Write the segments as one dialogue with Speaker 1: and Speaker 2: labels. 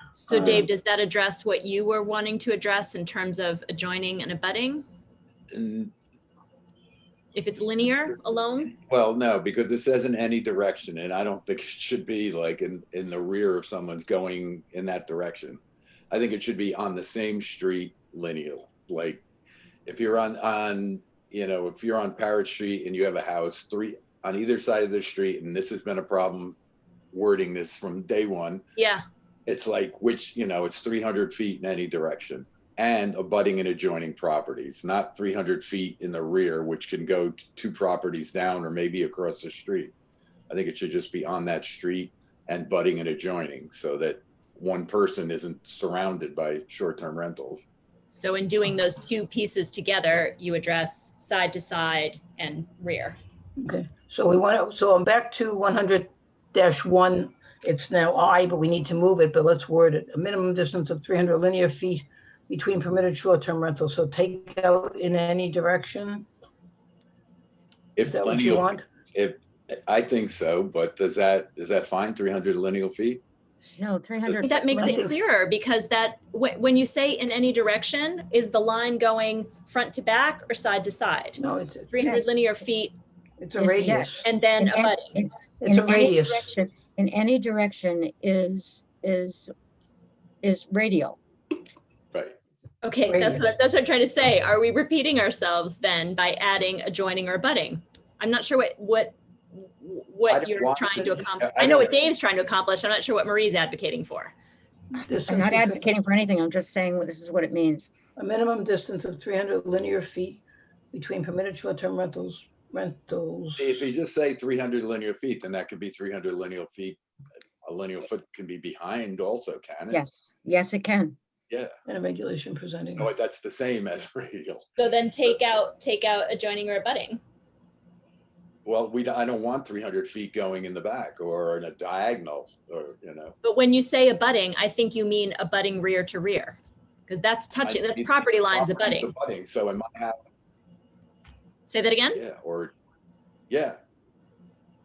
Speaker 1: Um,
Speaker 2: So Dave, does that address what you were wanting to address in terms of adjoining and abutting?
Speaker 3: And,
Speaker 2: If it's linear alone?
Speaker 3: well, no, because it says in any direction, and I don't think it should be like in, in the rear of someone's going in that direction. I think it should be on the same street lineal, like if you're on, on, you know, if you're on Parrot Street and you have a house, three, on either side of the street, and this has been a problem wording this from day one,
Speaker 2: Yeah,
Speaker 3: it's like which you know it's 300 feet in any direction and abutting and adjoining properties not 300 feet in the rear which can go t- two properties down or maybe across the street i think it should just be on that street and butting and adjoining so that one person isn't surrounded by short-term rentals
Speaker 2: so in doing those two pieces together, you address side to side and rear.
Speaker 4: Okay, so we want to, so I'm back to one hundred one. It's now I, but we need to move it, but let's word it. A minimum distance of three hundred linear feet between permitted short-term rentals. So take out in any direction. Is
Speaker 3: if
Speaker 4: that what you
Speaker 3: lineal,
Speaker 4: want?
Speaker 3: i think so but does that is that fine 300 lineal feet
Speaker 1: No, three hundred.
Speaker 2: That makes it
Speaker 4: Right.
Speaker 2: clearer because that, wh- when you say in any direction, is the line going front to back or side to side?
Speaker 4: No, it's,
Speaker 2: 300
Speaker 1: Yes.
Speaker 2: linear feet
Speaker 4: it's a
Speaker 1: Yes,
Speaker 4: radius.
Speaker 2: and then
Speaker 1: And then-
Speaker 2: abutting.
Speaker 4: It's a
Speaker 1: in any
Speaker 4: radius.
Speaker 1: direction- In any direction is, is, is radial.
Speaker 3: right
Speaker 2: Okay, that's
Speaker 4: Radius.
Speaker 2: what, that's what I'm trying to say. Are we repeating ourselves then by adding adjoining or abutting? I'm not sure what, what,
Speaker 3: I
Speaker 2: what
Speaker 3: don't
Speaker 2: you're
Speaker 3: want
Speaker 2: trying to
Speaker 3: to-
Speaker 2: accomplish.
Speaker 3: I
Speaker 2: I know what
Speaker 3: don't-
Speaker 2: Dave's trying to accomplish. I'm not sure what Marie's advocating for.
Speaker 4: Distance
Speaker 1: I'm not
Speaker 4: between-
Speaker 1: advocating for anything. I'm just saying this is what it means.
Speaker 4: A minimum distance of three hundred linear feet between permitted short-term rentals, rentals.
Speaker 3: if you just say 300 linear feet then that could be 300 lineal feet a lineal foot can be behind also can it
Speaker 1: Yes, yes, it can.
Speaker 4: And a regulation presenting.
Speaker 3: No, that's the same as radial.
Speaker 2: So then take out, take out adjoining or abutting.
Speaker 3: Well, we, I don't want three hundred feet going in the back or in a diagonal or, you know.
Speaker 2: But when you say abutting, I think you mean abutting rear to rear. Because that's touching, that's property lines
Speaker 3: properties
Speaker 2: abutting.
Speaker 3: abutting. So in my house,
Speaker 2: Say that again?
Speaker 3: yeah, or, yeah.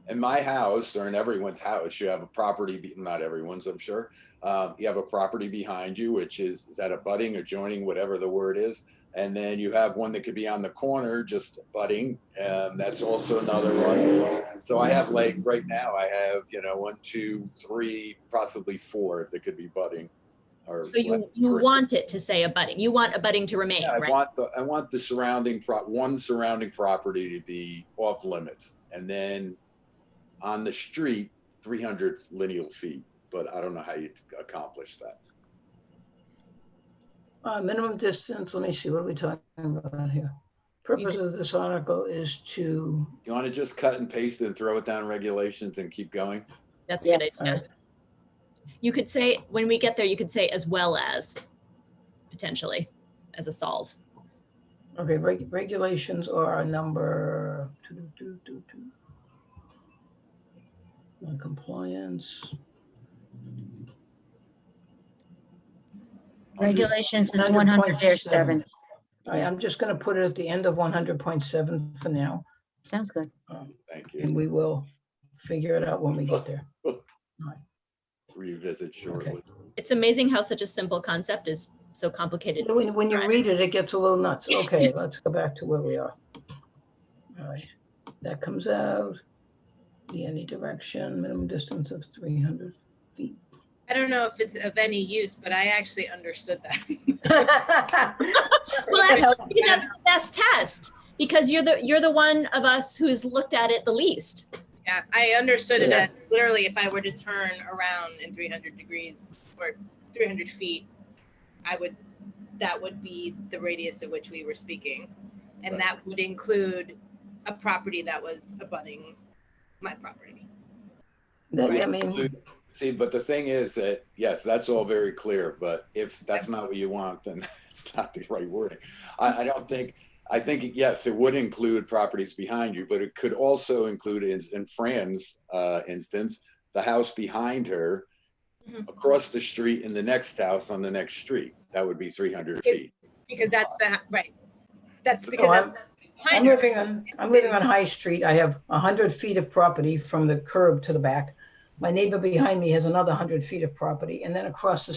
Speaker 3: In my house or in everyone's house, you have a property, be- not everyone's, I'm sure. Um, you have a property behind you, which is, is that abutting, adjoining, whatever the word is. And then you have one that could be on the corner, just abutting, and that's also another one. So I have like, right now, I have, you know, one, two, three, possibly four that could be budding. or
Speaker 2: So you,
Speaker 3: what,
Speaker 2: you
Speaker 3: three.
Speaker 2: want it to say abutting. You want abutting to remain,
Speaker 3: Yeah, I
Speaker 2: right?
Speaker 3: want the, I want the surrounding, pro- one surrounding property to be off limits. And then on the street, 300 lineal feet, but I don't know how you accomplish that.
Speaker 4: Uh, minimum distance, let me see, what are we talking about here? Purpose of this article is to,
Speaker 3: You want to just cut and paste and throw it down regulations and keep going?
Speaker 2: That's a good
Speaker 4: uh,
Speaker 1: Yes.
Speaker 2: idea. You could say, when we get there, you could say as well as, potentially, as a solve.
Speaker 4: okay, reg- regulations are a number. doo-doo-doo-doo-doo. Uh, Noncompliance.
Speaker 1: Regulations is one hundred seven.
Speaker 4: 100.7. All right, I'm just gonna put it at the end of one hundred point seven for now,
Speaker 1: Sounds good.
Speaker 4: um,
Speaker 3: Thank
Speaker 4: and
Speaker 3: you.
Speaker 4: we will figure it out when we get there.
Speaker 3: Revisit shortly.
Speaker 2: It's amazing how such a simple concept is so complicated.
Speaker 4: When, when you read it, it gets a little nuts. Okay, let's go back to where we are. All right, that comes out, the any direction, minimum distance of three hundred.
Speaker 5: I don't know if it's of any use, but I actually understood that.
Speaker 2: Well, actually, that's the best test, because you're the, you're the one of us who's looked at it the least.
Speaker 5: Yeah, I understood it
Speaker 4: Yeah.
Speaker 5: as literally if I were to turn around in 300 degrees or 300 feet, I would, that would be the radius of which we were speaking. And
Speaker 3: Right.
Speaker 5: that would include a property that was abutting my property.
Speaker 4: That, I mean,
Speaker 3: See, but the thing is that, yes, that's all very clear, but if that's not what you want, then it's not the right wording. I, I don't think, I think, yes, it would include properties behind you, but it could also include, in, in Fran's uh, instance, the house behind her,
Speaker 5: Mhm.
Speaker 3: across the street, and the next house on the next street. That would be 300 feet.
Speaker 5: Because that's the, right. That's
Speaker 3: So
Speaker 5: because
Speaker 4: I'm-
Speaker 5: that's that's
Speaker 4: I'm
Speaker 5: behind her.
Speaker 4: living on, I'm living on High Street. I have hundred feet of property from the curb to the back. My neighbor behind me has another hundred feet of property, and then across the